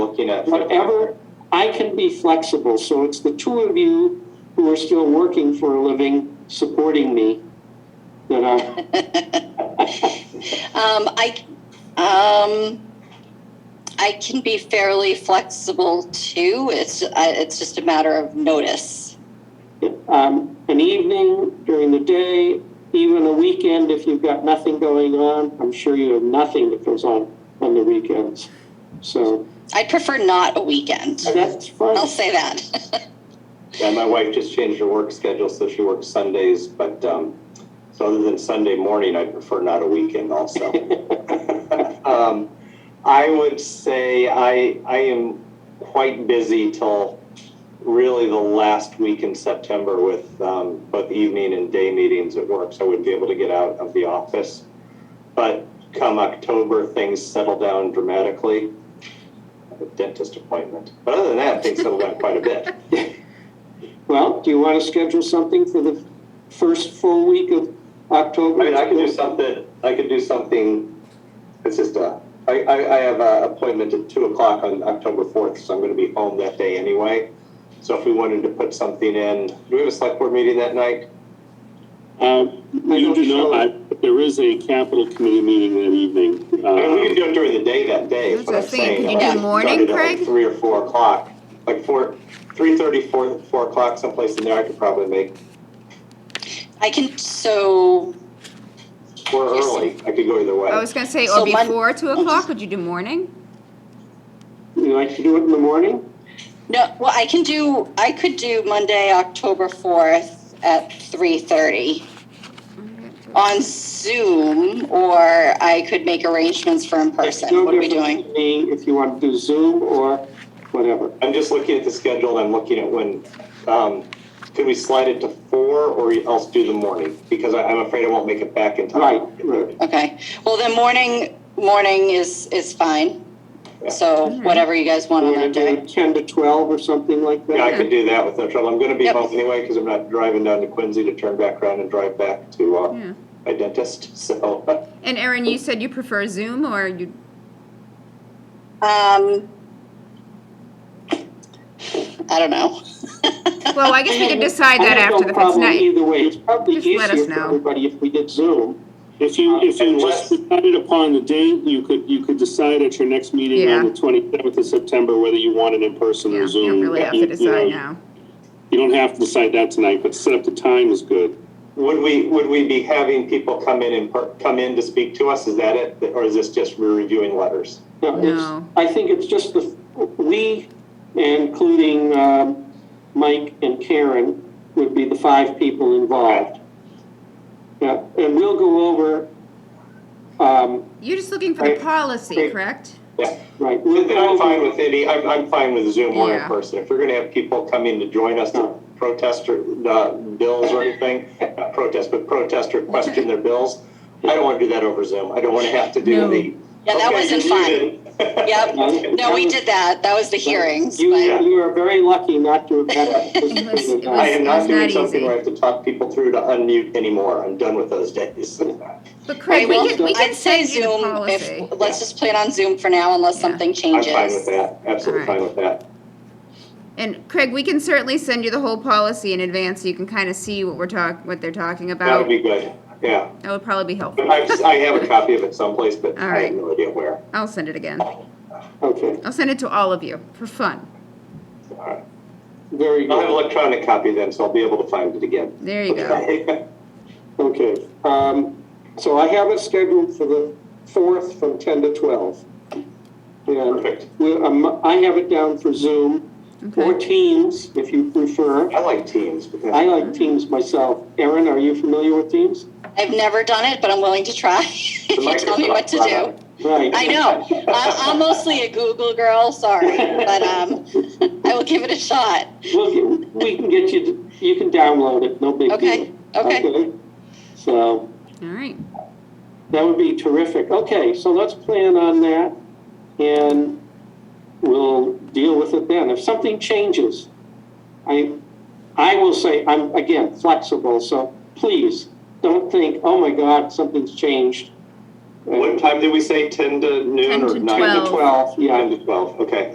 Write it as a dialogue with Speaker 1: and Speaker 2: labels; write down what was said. Speaker 1: looking at. for
Speaker 2: whatever, I can be flexible, so it's the two of you who are still working for a living, supporting me, that uh, are,
Speaker 3: Um, I, um, I can be fairly flexible too. It's, I- it's just a matter of notice.
Speaker 2: um, an evening, during the day, even a weekend, if you've got nothing going on, I'm sure you have nothing that goes on on the weekends. So,
Speaker 3: I'd prefer not a weekend.
Speaker 2: that's
Speaker 3: I'll
Speaker 2: fine.
Speaker 3: say that.
Speaker 1: Yeah, my wife just changed her work schedule, so she works Sundays, but, um, so other than Sunday morning, I prefer not a weekend also. Um, I would say I, I am quite busy till really the last week in September with, um, both evening and day meetings at work, so I wouldn't be able to get out of the office. But come October, things settle down dramatically. I have a dentist appointment, but other than that, things settle down quite a bit.
Speaker 2: Well, do you want to schedule something for the first full week of October?
Speaker 1: I mean, I could do something, I could do something, it's just a, I, I, I have a appointment at two o'clock on October fourth, so I'm gonna be home that day anyway. So if we wanted to put something in, do we have a select board meeting that night?
Speaker 4: Um, You do know, I, there is a capital committee meeting that evening.
Speaker 1: I mean, we could
Speaker 4: Um,
Speaker 1: do it during the day that day, is
Speaker 5: That's
Speaker 1: what
Speaker 5: what
Speaker 1: I'm
Speaker 5: I'm
Speaker 1: saying.
Speaker 5: saying. Could you
Speaker 1: Like,
Speaker 5: do morning,
Speaker 1: started at like
Speaker 5: Craig?
Speaker 1: Three or four o'clock, like four, three thirty, four, four o'clock, someplace in there, I could probably make,
Speaker 3: I can, so,
Speaker 1: or early, I could go either way.
Speaker 5: I was gonna say,
Speaker 3: So
Speaker 5: or
Speaker 3: Mon-
Speaker 5: before two o'clock, would you do morning?
Speaker 2: You like to do it in the morning?
Speaker 3: no, well, I can do, I could do Monday, October 4th at 3:30 on Zoom, or I could make arrangements for in person.
Speaker 2: No
Speaker 3: What are we
Speaker 2: difference
Speaker 3: doing?
Speaker 2: to me If you want to do Zoom or whatever.
Speaker 1: I'm just looking at the schedule and I'm looking at when, um, could we slide it to four or else do the morning? Because I, I'm afraid I won't make it back in time.
Speaker 2: Right, right.
Speaker 3: Okay, well, then morning, morning is, is fine. So whatever you guys want on
Speaker 2: We're gonna
Speaker 3: that
Speaker 2: do
Speaker 3: day.
Speaker 2: it ten to twelve or something like
Speaker 1: Yeah, I
Speaker 2: that.
Speaker 1: could do that with no trouble. I'm gonna be
Speaker 3: Yep.
Speaker 1: home anyway, cause I'm not driving down to Quincy to turn back around and drive back to, uh,
Speaker 5: Yeah.
Speaker 1: my dentist, so.
Speaker 5: And Erin, you said you prefer Zoom or you,
Speaker 3: Um, I don't know.
Speaker 5: well, I guess we could decide that
Speaker 2: I have
Speaker 5: after
Speaker 2: no
Speaker 5: the fifth
Speaker 2: problem
Speaker 5: night.
Speaker 2: either way. It's probably
Speaker 5: Just let us
Speaker 2: easier for
Speaker 5: know.
Speaker 2: everybody if we did Zoom.
Speaker 4: If you, if you
Speaker 1: Unless-
Speaker 4: just decided upon the date, you could, you could decide at your next meeting on
Speaker 5: Yeah.
Speaker 4: the twenty-seventh of September whether you want it in person
Speaker 5: Yeah,
Speaker 4: or Zoom.
Speaker 5: you don't really have
Speaker 4: You-
Speaker 5: to
Speaker 4: you
Speaker 5: decide
Speaker 4: know,
Speaker 5: now.
Speaker 4: You don't have to decide that tonight, but set up the time is good.
Speaker 1: Would we, would we be having people come in and, per- come in to speak to us? Is that it? Or is this just we're reviewing letters?
Speaker 2: No, it's-
Speaker 5: No.
Speaker 2: I think it's just the, we, including, um, Mike and Karen, would be the five people involved. Yeah, and we'll go over, um,
Speaker 5: You're just looking for the
Speaker 1: Right.
Speaker 5: policy,
Speaker 1: Right.
Speaker 5: correct?
Speaker 1: Yeah.
Speaker 2: right, we'll
Speaker 1: Then
Speaker 2: go
Speaker 1: I'm
Speaker 2: over,
Speaker 1: fine with any, I'm, I'm fine with Zoom or in
Speaker 5: Yeah.
Speaker 1: person. If we're gonna have people come in to join us to protest or, uh, bills or anything, not protest, but protest or question their bills, I don't wanna do that over Zoom. I don't wanna have to do
Speaker 5: No.
Speaker 1: the.
Speaker 3: Yeah, that
Speaker 1: "Okay,
Speaker 3: wasn't
Speaker 1: you're
Speaker 3: fun."
Speaker 1: muted."
Speaker 3: Yep, no, we did that. That was the hearings,
Speaker 2: you,
Speaker 3: but.
Speaker 2: you are very lucky not to have had.
Speaker 5: It was- it
Speaker 1: I
Speaker 2: that.
Speaker 1: am
Speaker 5: It
Speaker 1: not
Speaker 5: was
Speaker 1: doing
Speaker 5: not
Speaker 1: something
Speaker 5: easy.
Speaker 1: where I have to talk people through to unmute anymore. I'm done with those days.
Speaker 5: But
Speaker 3: Right,
Speaker 5: Craig, we
Speaker 3: well,
Speaker 5: could,
Speaker 3: we can
Speaker 5: I'd
Speaker 3: say
Speaker 5: send you the
Speaker 3: Zoom
Speaker 5: policy.
Speaker 3: if, let's just play it on Zoom for now unless
Speaker 5: Yeah.
Speaker 3: something
Speaker 1: I'm
Speaker 3: changes.
Speaker 1: fine with that, absolutely
Speaker 5: Alright.
Speaker 1: fine with that.
Speaker 5: And Craig, we can certainly send you the whole policy in advance so you can kind of see what we're talk, what they're talking
Speaker 1: That
Speaker 5: about.
Speaker 1: would be good, yeah.
Speaker 5: That would probably be helpful.
Speaker 1: But I, I have a copy of it someplace, but I have
Speaker 5: Alright.
Speaker 1: no idea where.
Speaker 5: I'll send it again.
Speaker 2: Okay,
Speaker 5: I'll send it to all of you for fun.
Speaker 1: Alright.
Speaker 2: very
Speaker 1: I'll have an
Speaker 2: good,
Speaker 1: electronic copy then, so I'll be able to find it again.
Speaker 5: There you go.
Speaker 1: Okay.
Speaker 2: okay. Um, so I have it scheduled for the fourth from ten to twelve. And
Speaker 1: Perfect.
Speaker 2: we, um, I have it down for Zoom or
Speaker 5: Okay.
Speaker 2: Teams if you prefer.
Speaker 1: I like teams, but
Speaker 2: I
Speaker 1: that's,
Speaker 2: like Teams myself. Erin, are you familiar with Teams?
Speaker 3: I've never done it, but I'm willing to try. If you tell me what to do.
Speaker 2: Right.
Speaker 3: I know, I'm, I'm mostly a Google girl, sorry, but, um, I will give it a shot.
Speaker 2: We'll get- we can get you, to- you can download it, no big deal.
Speaker 3: Okay, okay.
Speaker 2: So
Speaker 5: All right.
Speaker 2: that would be terrific. Okay, so let's plan on that and we'll deal with it then. If something changes, I, I will say, I'm, again, flexible, so please don't think, oh my God, something's changed.
Speaker 1: what time did we say, ten to noon
Speaker 5: 10
Speaker 1: or
Speaker 5: to
Speaker 1: nine
Speaker 5: 12.
Speaker 1: to
Speaker 2: 12, yeah.
Speaker 1: Nine to twelve, okay.